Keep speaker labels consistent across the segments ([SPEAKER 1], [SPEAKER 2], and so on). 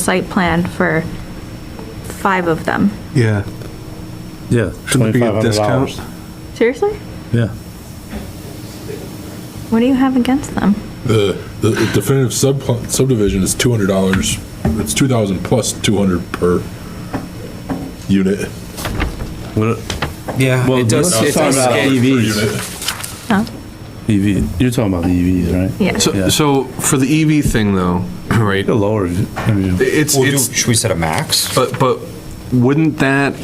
[SPEAKER 1] site plan for five of them.
[SPEAKER 2] Yeah.
[SPEAKER 3] Yeah,
[SPEAKER 2] Shouldn't it be a discount?
[SPEAKER 3] $2,500.
[SPEAKER 1] Seriously?
[SPEAKER 3] Yeah.
[SPEAKER 1] What do you have against them?
[SPEAKER 4] The, the definitive sub- subdivision is two hundred dollars, it's two thousand plus two hundred per unit.
[SPEAKER 3] What-
[SPEAKER 5] Yeah,
[SPEAKER 3] Well,
[SPEAKER 5] it does,
[SPEAKER 3] let's
[SPEAKER 5] it
[SPEAKER 3] talk
[SPEAKER 5] does
[SPEAKER 3] about E
[SPEAKER 5] say-
[SPEAKER 3] EVs.
[SPEAKER 1] Huh?
[SPEAKER 3] EV, you're talking about the EVs, right?
[SPEAKER 1] Yeah.
[SPEAKER 3] Yeah.
[SPEAKER 6] So, so for
[SPEAKER 5] E,
[SPEAKER 6] the EV thing though, right?
[SPEAKER 3] The lower, I mean,
[SPEAKER 6] It's,
[SPEAKER 5] We'll do-
[SPEAKER 6] it's,
[SPEAKER 5] Should we set a max?
[SPEAKER 6] but, but wouldn't that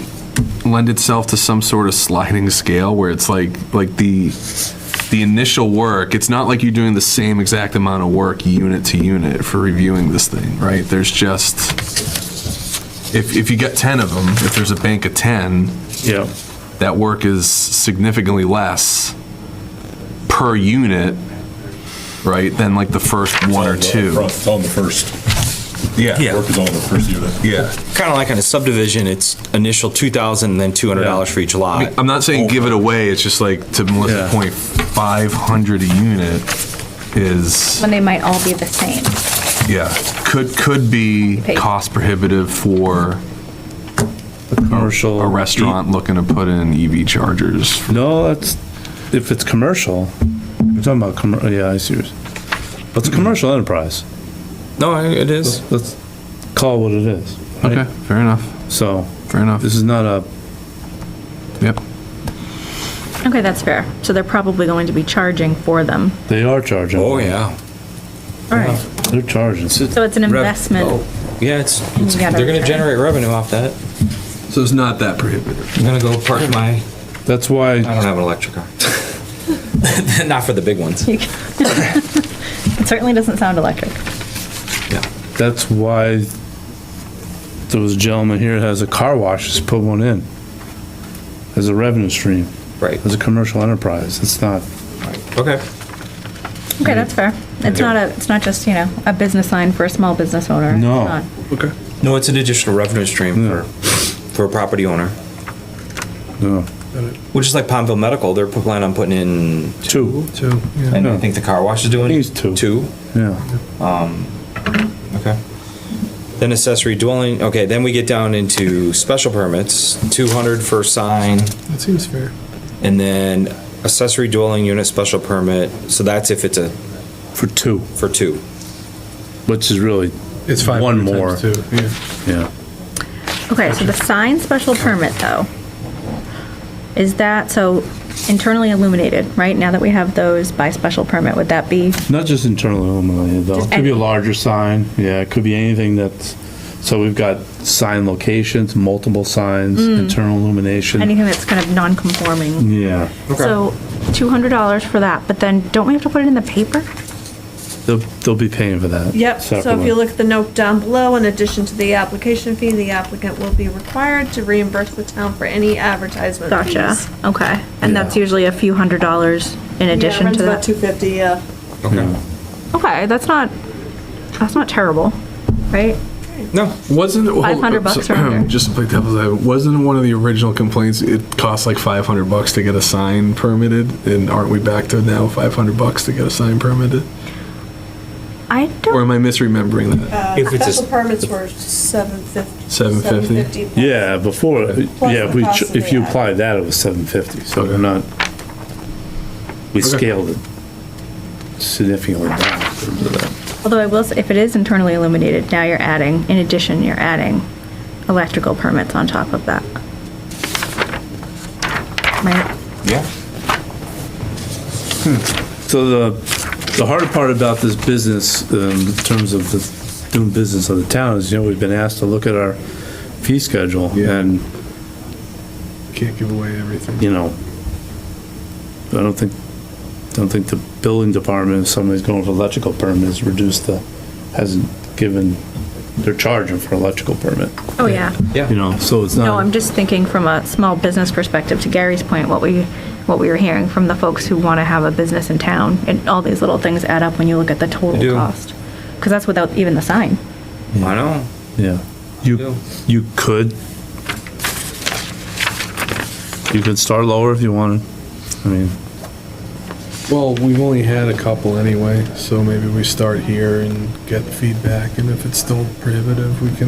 [SPEAKER 6] lend itself to some sort of sliding scale where it's like, like the, the initial work, it's not like you're doing the same exact amount of work unit to unit for reviewing this thing, right? There's just, if, if you got 10 of them, if there's a bank of 10,
[SPEAKER 3] yeah,
[SPEAKER 6] that work is significantly less per unit, right, than like the first one or two.
[SPEAKER 4] It's on the first,
[SPEAKER 5] Yeah.
[SPEAKER 4] work is on the first unit.
[SPEAKER 6] Yeah.
[SPEAKER 5] Kind of like on a subdivision, it's initial 2,000, then $200 for each lot.
[SPEAKER 6] I'm not saying give it away, it's just like, to Melissa's
[SPEAKER 3] Yeah.
[SPEAKER 6] point, 500 a unit is,
[SPEAKER 1] When they might all be the same.
[SPEAKER 6] yeah, could, could be
[SPEAKER 1] Pay.
[SPEAKER 6] cost prohibitive for
[SPEAKER 3] commercial. E
[SPEAKER 6] a restaurant looking to put in EV chargers.
[SPEAKER 3] No, that's, if it's commercial, you're talking about, commer- oh, yeah, I see. yours. But it's a commercial enterprise.
[SPEAKER 5] No, I- it is.
[SPEAKER 3] Let's call it what it is. right?
[SPEAKER 6] Okay, fair enough,
[SPEAKER 3] So
[SPEAKER 6] fair enough,
[SPEAKER 3] this is not a,
[SPEAKER 6] yep.
[SPEAKER 1] Okay, that's fair. So they're probably going to be charging for them.
[SPEAKER 3] they are charging.
[SPEAKER 5] Oh, yeah.
[SPEAKER 1] All right.
[SPEAKER 3] They're charging.
[SPEAKER 1] So it's an
[SPEAKER 5] Rev-
[SPEAKER 1] investment.
[SPEAKER 5] oh, Yeah, it's, it's-
[SPEAKER 1] You gotta
[SPEAKER 5] they're
[SPEAKER 1] return.
[SPEAKER 5] going to generate revenue off that.
[SPEAKER 6] So it's not that prohibitive.
[SPEAKER 5] I'm going to go park my,
[SPEAKER 3] That's
[SPEAKER 5] I
[SPEAKER 3] why,
[SPEAKER 5] don't have an electric car. Not for the big ones.
[SPEAKER 1] You can- It certainly doesn't sound electric.
[SPEAKER 5] Yeah.
[SPEAKER 3] that's why those gentlemen here has a car wash, just put one in. As a revenue stream,
[SPEAKER 5] Right,
[SPEAKER 3] as a commercial enterprise. It's not,
[SPEAKER 5] okay.
[SPEAKER 1] Okay, that's fair. It's not a, it's not just, you know, a business line for a small business owner. It's
[SPEAKER 3] No.
[SPEAKER 1] not.
[SPEAKER 5] No, it's an additional revenue stream
[SPEAKER 3] Yeah.
[SPEAKER 5] for, for a property owner.
[SPEAKER 3] no.
[SPEAKER 5] Which is like Palmville Medical, they're planning on putting in,
[SPEAKER 3] Two.
[SPEAKER 2] So, yeah.
[SPEAKER 5] and
[SPEAKER 3] Yeah.
[SPEAKER 5] I think the car wash is doing.
[SPEAKER 3] These two.
[SPEAKER 5] Two,
[SPEAKER 3] Yeah.
[SPEAKER 5] Okay. Then accessory dwelling, okay, then we get down into special permits, 200 for sign,
[SPEAKER 2] That seems fair.
[SPEAKER 5] and then accessory dwelling unit special permit, so that's if it's a,
[SPEAKER 3] For two,
[SPEAKER 5] for two.
[SPEAKER 3] which is really,
[SPEAKER 2] It's five.
[SPEAKER 3] One more.
[SPEAKER 2] Too. Yeah.
[SPEAKER 3] yeah.
[SPEAKER 1] Okay, so the sign special permit though, is that, so internally illuminated, right? Now that we have those by special permit, would that be
[SPEAKER 3] Not just internally illuminated though. It
[SPEAKER 1] Just
[SPEAKER 3] could be a
[SPEAKER 1] any-
[SPEAKER 3] larger sign. Yeah, it could be anything that's, so we've got sign locations, multiple signs,
[SPEAKER 7] Mm.
[SPEAKER 3] internal illumination.
[SPEAKER 1] anything that's kind of
[SPEAKER 6] Mm,
[SPEAKER 1] non-conforming?
[SPEAKER 3] Yeah.
[SPEAKER 1] So two hundred dollars for that, but then don't we have to put it in the paper?
[SPEAKER 3] They'll, they'll be paying for that.
[SPEAKER 7] Yep, so if
[SPEAKER 3] separately.
[SPEAKER 7] you look at the note down below, in addition to the application fee, the applicant will be required to reimburse the town for any advertisement fees.
[SPEAKER 1] Gotcha, okay. And that's usually a few hundred dollars in addition to
[SPEAKER 7] Yeah,
[SPEAKER 1] that?
[SPEAKER 7] runs about two fifty, uh, yeah.
[SPEAKER 5] Okay.
[SPEAKER 1] Okay, that's not, that's not terrible, right?
[SPEAKER 5] No,
[SPEAKER 6] Wasn't hold-
[SPEAKER 1] 500 bucks or under.
[SPEAKER 6] Just to play devil's advocate, wasn't one of the original complaints it cost like five hundred bucks to get a sign permitted, and aren't we back to now five hundred bucks to get a sign permitted?
[SPEAKER 1] I
[SPEAKER 6] Or
[SPEAKER 1] don't,
[SPEAKER 6] am I misremembering that?
[SPEAKER 7] Uh,
[SPEAKER 5] If it's a-
[SPEAKER 7] Special permits were seven fifty.
[SPEAKER 6] 750?
[SPEAKER 3] Yeah, before,
[SPEAKER 7] Plus
[SPEAKER 3] yeah, if
[SPEAKER 7] the
[SPEAKER 3] we,
[SPEAKER 7] cost
[SPEAKER 3] ch-
[SPEAKER 7] of
[SPEAKER 3] if
[SPEAKER 7] the
[SPEAKER 3] you
[SPEAKER 7] ad.
[SPEAKER 3] apply that, it was seven fifty, so we're
[SPEAKER 6] Okay.
[SPEAKER 3] not, we scaled it significantly down. in terms of that.
[SPEAKER 1] although I will, say, if it is internally illuminated, now you're adding, in addition, you're adding electrical permits on top of that. Right?
[SPEAKER 5] yeah.
[SPEAKER 3] So the, the harder part about this business, um, in terms of the doing business of the town, is, you know, we've been asked to look at our fee schedule,
[SPEAKER 2] Yeah.
[SPEAKER 3] and,
[SPEAKER 2] Can't give away everything.
[SPEAKER 3] you know, I don't think, don't think the building department, if somebody's going for electrical permit, has reduced the, hasn't given, they're charging for electrical permit.
[SPEAKER 1] Oh, yeah.
[SPEAKER 5] Yeah.
[SPEAKER 3] You know, so it's
[SPEAKER 1] No, I'm
[SPEAKER 3] not,
[SPEAKER 1] just thinking from a small business perspective, to Gary's point, what we, what we were hearing from the folks who want to have a business in town, and all these little things add up when you look at the total
[SPEAKER 5] do.
[SPEAKER 1] cost. Because that's without even the sign.
[SPEAKER 5] I know.
[SPEAKER 3] yeah. You, you could, you could start lower if you wanted. I mean,
[SPEAKER 4] Well, we've only had a couple anyway, so maybe we start here and get feedback, and if it's still prohibitive, we can